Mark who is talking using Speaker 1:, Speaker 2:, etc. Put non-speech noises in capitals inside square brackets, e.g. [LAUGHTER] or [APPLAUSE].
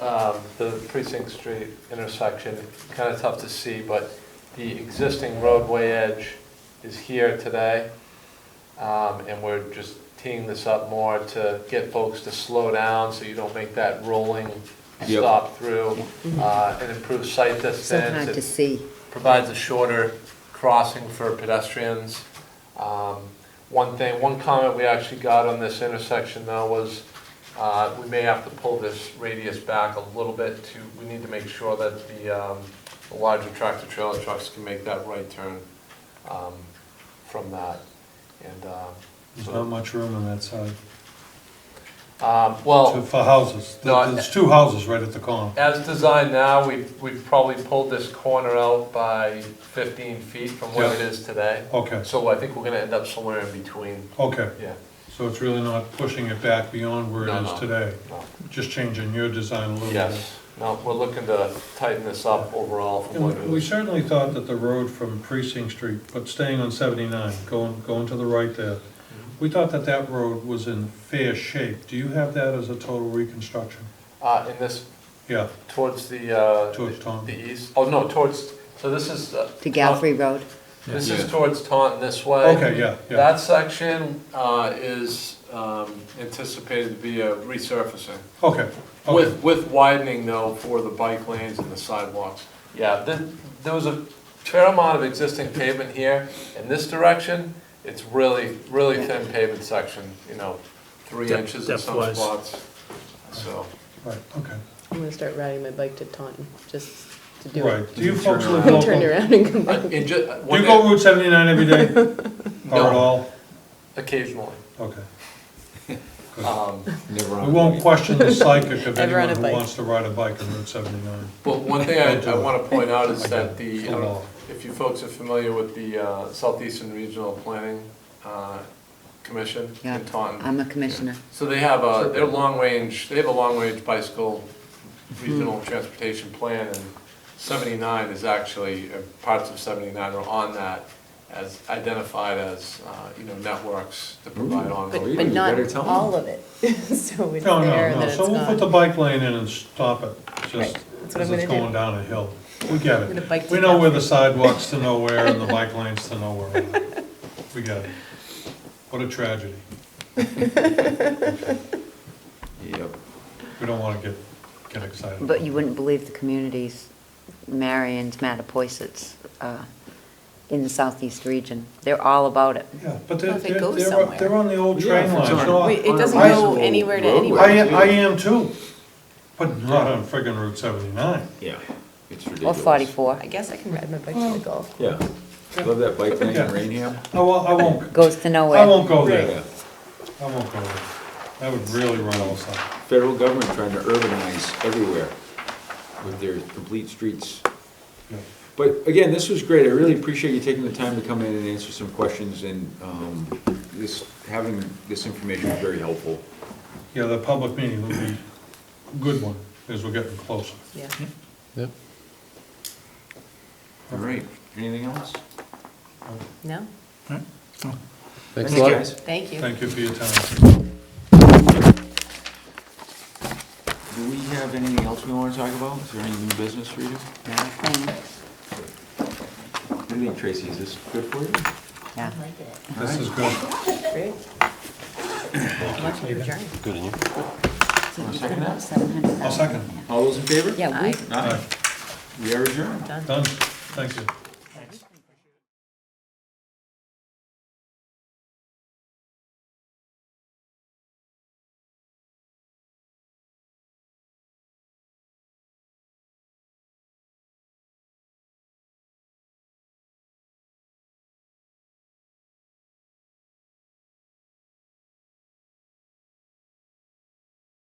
Speaker 1: um, the Precinct Street intersection, kind of tough to see, but the existing roadway edge is here today. Um, And we're just teeing this up more to get folks to slow down so you don't make that rolling
Speaker 2: Yep.
Speaker 1: stop through uh, and improve sight distance.
Speaker 3: So hard
Speaker 1: It
Speaker 3: to see.
Speaker 1: provides a shorter crossing for pedestrians. Um, One thing, one comment we actually got on this intersection though was, uh, we may have to pull this radius back a little bit to, we need to make sure that the, um, the larger tractor trailer trucks can make that right turn, um, from that. And, um,
Speaker 4: There's not
Speaker 1: so,
Speaker 4: much room on that side,
Speaker 1: um,
Speaker 4: to-
Speaker 1: well,
Speaker 4: for houses. There-
Speaker 1: No, I-
Speaker 4: There's two houses right at the corner.
Speaker 1: as designed now, we've, we've probably pulled this corner out by fifteen feet from where it
Speaker 4: Yeah.
Speaker 1: is today.
Speaker 4: Okay,
Speaker 1: So I think we're gonna end up somewhere in between,
Speaker 4: okay,
Speaker 1: yeah.
Speaker 4: so it's really not pushing it back beyond where
Speaker 1: No,
Speaker 4: it
Speaker 1: no.
Speaker 4: is today,
Speaker 1: No.
Speaker 4: just changing your design a little bit.
Speaker 1: Yes, no, we're looking to tighten this up overall from
Speaker 4: And
Speaker 1: what
Speaker 4: we-
Speaker 1: it
Speaker 4: we
Speaker 1: was.
Speaker 4: certainly thought that the road from Precinct Street, but staying on seventy-nine, going, going to the right there, we thought that that road was in fair shape. Do you have that as a total reconstruction?
Speaker 1: Uh, in this,
Speaker 4: Yeah,
Speaker 1: towards the, uh,
Speaker 4: Towards
Speaker 1: the
Speaker 4: Taunton.
Speaker 1: east, oh, no, towards, so this is. uh,
Speaker 3: To Gallery Road,
Speaker 1: This
Speaker 2: Yeah.
Speaker 1: is towards Taunton this way.
Speaker 4: okay, yeah, yeah,
Speaker 1: That section, uh, is, um, anticipated to be a resurfacing.
Speaker 4: okay, okay,
Speaker 1: With, with widening though for the bike lanes and the sidewalks. Yeah, there, there was a fair amount of existing pavement here. In this direction, it's really, really thin pavement section, you know, three
Speaker 5: Depth-
Speaker 1: inches in some
Speaker 5: depth-wise.
Speaker 1: spots. So,
Speaker 4: right, okay,
Speaker 6: I'm gonna start riding my bike to Taunton, just to do it.
Speaker 4: right. Do you folks live
Speaker 6: I'll turn
Speaker 4: local?
Speaker 6: around and come
Speaker 1: uh,
Speaker 6: back.
Speaker 1: and ju, uh,
Speaker 4: Do
Speaker 1: one
Speaker 4: you go
Speaker 1: day-
Speaker 4: Route seventy-nine every
Speaker 6: [LAUGHS]
Speaker 4: day, or at
Speaker 1: No.
Speaker 4: all?
Speaker 1: occasionally.
Speaker 4: Okay.
Speaker 1: Um,
Speaker 2: Never
Speaker 4: We
Speaker 2: on.
Speaker 4: won't question the
Speaker 6: [LAUGHS]
Speaker 4: psychic of
Speaker 6: Ever
Speaker 4: anyone
Speaker 6: on a
Speaker 4: who
Speaker 6: bike.
Speaker 4: wants to ride a bike on Route 79.
Speaker 1: But one thing I, I wanna point out is
Speaker 4: I
Speaker 1: that
Speaker 4: get
Speaker 1: the, um, I
Speaker 4: full
Speaker 1: don't know
Speaker 4: law.
Speaker 1: if you folks are familiar with the uh, Southeastern Regional Planning, uh, Commission
Speaker 3: Yeah.
Speaker 1: in Taunton.
Speaker 3: I'm a commissioner.
Speaker 1: So they have a, their long-range, they have a long-range bicycle regional transportation plan, and 79 is actually, uh, parts of 79 are on that as identified as, uh, you know, networks to provide on.
Speaker 2: Ooh.
Speaker 6: But,
Speaker 2: you
Speaker 6: but not
Speaker 2: better tell me.
Speaker 6: all of it. [LAUGHS] So it's
Speaker 4: No, no,
Speaker 6: there and then
Speaker 4: no,
Speaker 6: it's
Speaker 4: so we'll put the
Speaker 6: gone.
Speaker 4: bike lane in and stop it, just
Speaker 6: Right, that's what
Speaker 4: as
Speaker 6: I'm
Speaker 4: it's
Speaker 6: gonna do.
Speaker 4: going down a hill. We get
Speaker 6: I'm gonna
Speaker 4: it.
Speaker 6: bike
Speaker 4: We
Speaker 6: to
Speaker 4: know where
Speaker 6: Calgary.
Speaker 4: the sidewalks to nowhere and the bike lanes to nowhere. are. We get it. What a
Speaker 6: [LAUGHS]
Speaker 4: tragedy.
Speaker 2: Yep.
Speaker 4: We don't want to get, get excited.
Speaker 3: But you wouldn't believe the communities, Marion's, Mattapoisett's, uh, in the southeast region. They're all about it.
Speaker 4: Yeah, but they're,
Speaker 6: Well, if it
Speaker 4: they're,
Speaker 6: goes
Speaker 4: they're
Speaker 6: somewhere.
Speaker 4: they're on the old
Speaker 2: Yeah,
Speaker 4: train
Speaker 2: if
Speaker 4: line.
Speaker 2: it's on-
Speaker 4: so
Speaker 6: Wait, it
Speaker 2: on a
Speaker 6: doesn't
Speaker 2: reasonable
Speaker 6: go anywhere to
Speaker 2: roadway,
Speaker 6: anywhere.
Speaker 4: I,
Speaker 2: too.
Speaker 4: I am too, but not on friggin' Route 79.
Speaker 2: Yeah, it's
Speaker 3: Or
Speaker 2: ridiculous.
Speaker 3: 44,
Speaker 6: I guess I can ride my bike
Speaker 4: Oh.
Speaker 6: to the golf.
Speaker 2: Yeah. Love that bike lane in Rainham.
Speaker 4: I won't, I won't,
Speaker 3: goes to nowhere.
Speaker 4: I won't go there.
Speaker 2: Yeah.
Speaker 4: I won't go there. That would really run all sides.
Speaker 2: Federal government trying to urbanize everywhere with their complete streets.
Speaker 4: Yeah.
Speaker 2: But again, this was great. I really appreciate you taking the time to come in and answer some questions and, um, this, having this information is very helpful.
Speaker 4: Yeah, the public meeting would be a good one, as we're getting closer.
Speaker 6: Yeah.
Speaker 2: All right, anything else?
Speaker 6: No?
Speaker 2: Thanks, guys.
Speaker 6: Thank you.
Speaker 4: Thank you for your time.
Speaker 2: Do we have anything else we wanna talk about? Is there any new business for you? What
Speaker 3: Mm,
Speaker 2: do you think, Tracy? Is this good for you?
Speaker 3: Yeah.
Speaker 4: This is good.
Speaker 6: Great. Much adjourned.
Speaker 2: Wanna second that?
Speaker 4: I'll second.
Speaker 2: All those in favor?
Speaker 3: Yeah, we
Speaker 6: Aye.
Speaker 4: All
Speaker 2: Aye.
Speaker 4: right,
Speaker 2: We are adjourned.
Speaker 6: Done.
Speaker 4: done. Thank you.